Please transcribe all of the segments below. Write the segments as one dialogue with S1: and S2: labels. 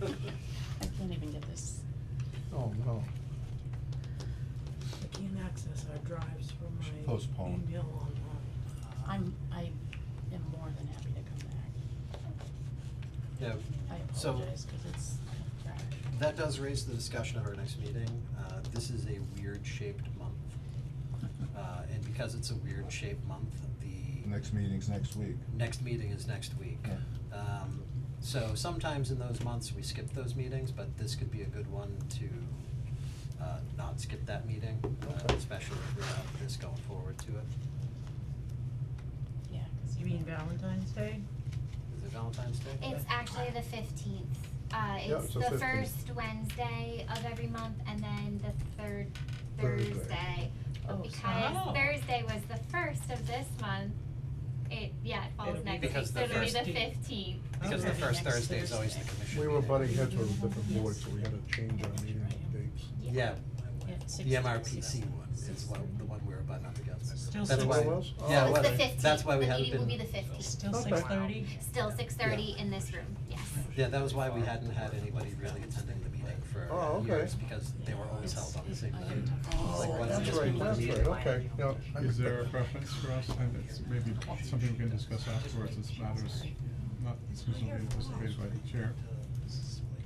S1: Oh,
S2: postpone.
S3: Email online.
S4: I'm, I am more than happy to come back.
S5: Yeah,
S4: I
S5: So-
S4: apologize, cause it's trash.
S5: that does raise the discussion of our next meeting. Uh, this is a weird shaped month. Uh, and because it's a weird shaped month, the
S2: Next meeting's next week.
S5: next meeting is next week.
S2: Yeah.
S5: Um, so sometimes in those months, we skip those meetings, but this could be a good one to, uh, not skip that meeting, uh, especially if we have this going forward to it.
S4: Yeah, cause
S6: You
S4: you
S6: mean Valentine's Day?
S5: Is it Valentine's Day?
S7: It's actually the fifteenth.
S2: Yeah,
S7: Uh, it's
S2: it's the
S7: the
S2: 15th.
S7: first Wednesday of every month and then the third
S2: Thursday.
S7: Thursday.
S4: Oh,
S7: But
S4: so-
S7: because Thursday was the first of this month, it, yeah, it
S3: It'll
S7: falls
S3: be
S7: next week,
S5: because
S7: so
S5: the
S7: it'll be the fifteenth.
S3: first-
S5: Because the
S4: Okay.
S5: first
S4: Next
S5: Thursday is always the
S4: Thursday.
S5: commission
S1: We were
S5: meeting.
S1: butting heads with different
S4: Yes.
S1: boards, so we had to change our meeting dates.
S5: Yeah,
S4: Yeah, six
S5: the
S4: days.
S5: MRPC one is what, the one we were butting up against.
S6: Still
S5: That's
S6: six-
S5: why-
S6: It
S1: was?
S5: Yeah,
S1: Oh.
S5: it
S7: It's the
S5: was.
S7: fifteenth.
S5: That's why we hadn't
S7: The meeting
S5: been-
S7: will be the fifteenth.
S6: Still
S1: Okay.
S6: six thirty?
S7: Still six thirty in this room, yes.
S5: Yeah, that was why we hadn't had anybody really attending the meeting for
S1: Oh, okay.
S5: years, because they were always held on the same night.
S4: Oh,
S5: Like, why don't
S1: That's
S5: just
S1: right,
S5: move the
S1: that's
S5: meeting?
S1: right, okay, yeah. I
S8: Is there a
S1: remember.
S8: preference for us, and it's maybe something we can discuss afterwards, as matters not exclusively anticipated by the chair,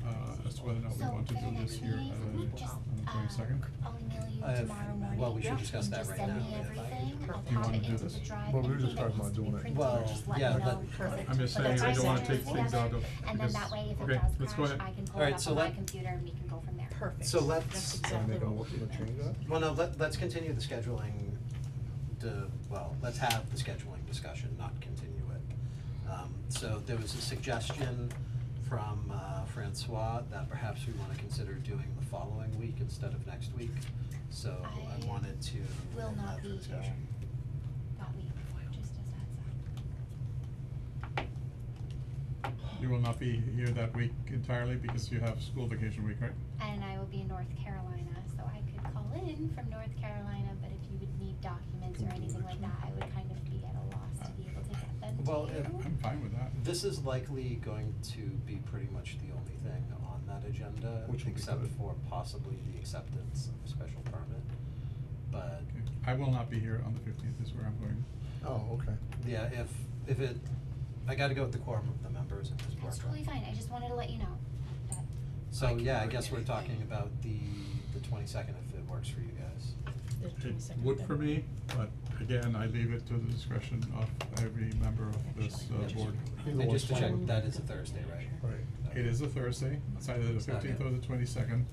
S8: uh, as to whether or not we
S7: So
S8: want to
S7: for the
S8: do this
S7: next
S8: here,
S7: meeting,
S8: uh,
S7: just,
S8: on the
S7: uh,
S8: twenty-second?
S7: I'll email you
S5: Uh,
S7: tomorrow morning.
S5: well, we should discuss that right now, yeah.
S7: Just send me everything,
S8: Do you
S7: I'll pop it
S8: wanna do
S7: into
S8: this?
S7: the drive,
S1: Well, we were
S7: anything
S1: just
S7: that
S1: talking
S7: needs to
S1: about
S7: be
S1: doing it.
S7: printed,
S5: Well,
S7: just let me
S5: yeah,
S7: know.
S5: that-
S7: Perfect.
S8: I'm just
S7: But
S8: saying,
S7: that's
S8: I
S7: why
S8: don't wanna
S7: said
S8: take
S7: it's
S8: things out of,
S7: together, And then
S8: because,
S7: that way, if
S8: okay,
S7: it does
S8: let's go
S7: crash,
S8: ahead.
S7: I can pull it
S5: Alright,
S7: up
S5: so
S7: on my
S5: let-
S7: computer and we can go from there.
S4: Perfect.
S5: So let's-
S4: That's
S1: Can I
S4: exactly
S1: make a
S4: what we
S1: motion to change that?
S5: Well, no, let, let's continue the scheduling, the, well, let's have the scheduling discussion, not continue it. Um, so there was a suggestion from uh, Francois that perhaps we wanna consider doing the following week instead of next week. So Oh, I
S7: I
S5: wanted to
S7: will
S5: have
S7: not
S5: that
S7: be here.
S5: discussion.
S7: Got me, just as heads up.
S8: You will not be here that week entirely because you have school vacation week, right?
S7: And I will be in North Carolina, so I could call in from North Carolina, but if you would need documents or anything like that, I would kind of be at a loss to be able to get them to you.
S5: Well, if-
S8: I'm fine with that.
S5: This is likely going to be pretty much the only thing on that agenda,
S1: Which will be
S5: except
S1: good.
S5: for possibly the acceptance of a special permit. But,
S8: Okay. I will not be here on the fifteenth is where I'm going.
S1: Oh, okay.
S5: yeah, if, if it, I gotta go with the quorum of the members at this board.
S7: That's totally fine, I just wanted to let you know that
S5: So, yeah, I guess we're talking about the, the twenty-second, if it works for you guys.
S4: The
S8: It
S4: 22nd
S8: would for
S4: February.
S8: me, but again, I leave it to the discretion of every member of this uh, board.
S1: Either
S5: And just to
S1: one's
S5: check,
S1: fine.
S5: that is a Thursday, right?
S1: Right.
S8: It is a Thursday, it's either the
S5: It's not
S8: fifteenth
S5: yet.
S8: or the twenty-second.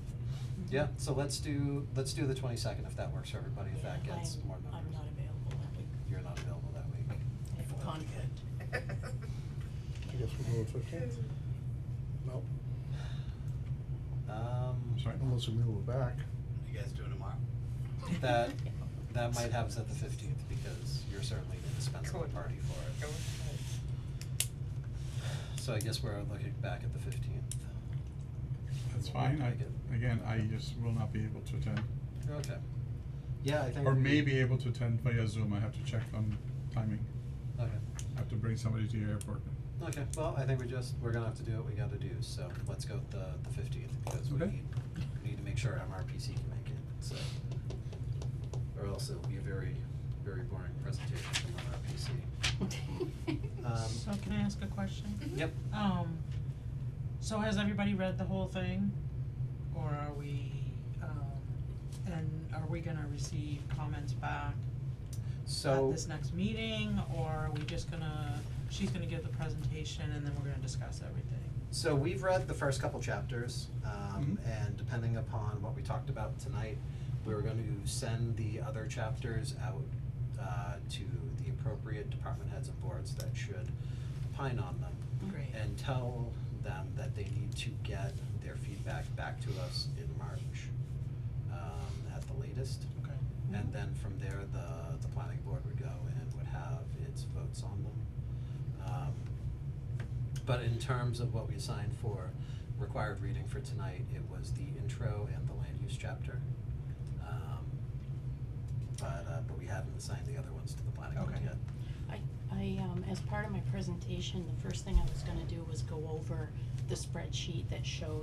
S5: Yeah, so let's do, let's do the twenty-second if that works for everybody, if that
S4: Yeah,
S5: gets
S4: I'm-
S5: more members.
S4: I'm not available that week.
S5: You're not available that week.
S4: I have a conflict.
S1: I guess we'll do it fifteenth. Nope,
S5: Um.
S8: Sorry.
S1: unless we move it back.
S9: You guys doing tomorrow?
S5: That, that might have us at the fifteenth, because you're certainly the indispensable party for it. So I guess we're looking back at the fifteenth.
S8: That's fine, I, again, I just will not be able to attend,
S5: Okay. Yeah, I think.
S8: or
S5: we-
S8: may be able to attend via Zoom, I have to check on timing.
S5: Okay,
S8: I have to bring somebody to the airport.
S5: okay, well, I think we just, we're gonna have to do what we gotta do, so let's go with the, the fifteenth, because we
S8: Okay.
S5: need, we need to make sure MRPC can make it, so. Or else it'll be a very, very boring presentation from MRPC.
S6: So
S5: Um,
S6: can I ask a question?
S5: yep,
S6: Um, so has everybody read the whole thing? Or are we, um, and are we gonna receive comments back
S5: so.
S6: at this next meeting? Or are we just gonna, she's gonna give the presentation and then we're gonna discuss everything?
S5: So we've read the first couple chapters, um, and depending upon what we talked about tonight, we were gonna send the other chapters out, uh, to the appropriate department heads and boards that should pine on them.
S6: Great.
S5: And tell them that they need to get their feedback back to us in March, um, at the latest.
S6: Okay.
S5: And then from there, the, the planning board would go and would have its votes on them. Um, But in terms of what we assigned for required reading for tonight, it was the intro and the land use chapter. Um, But, uh, but we haven't assigned the other ones to the planning board
S6: Okay.
S5: yet.
S4: I, I, um, as part of my presentation, the first thing I was gonna do was go over the spreadsheet that shows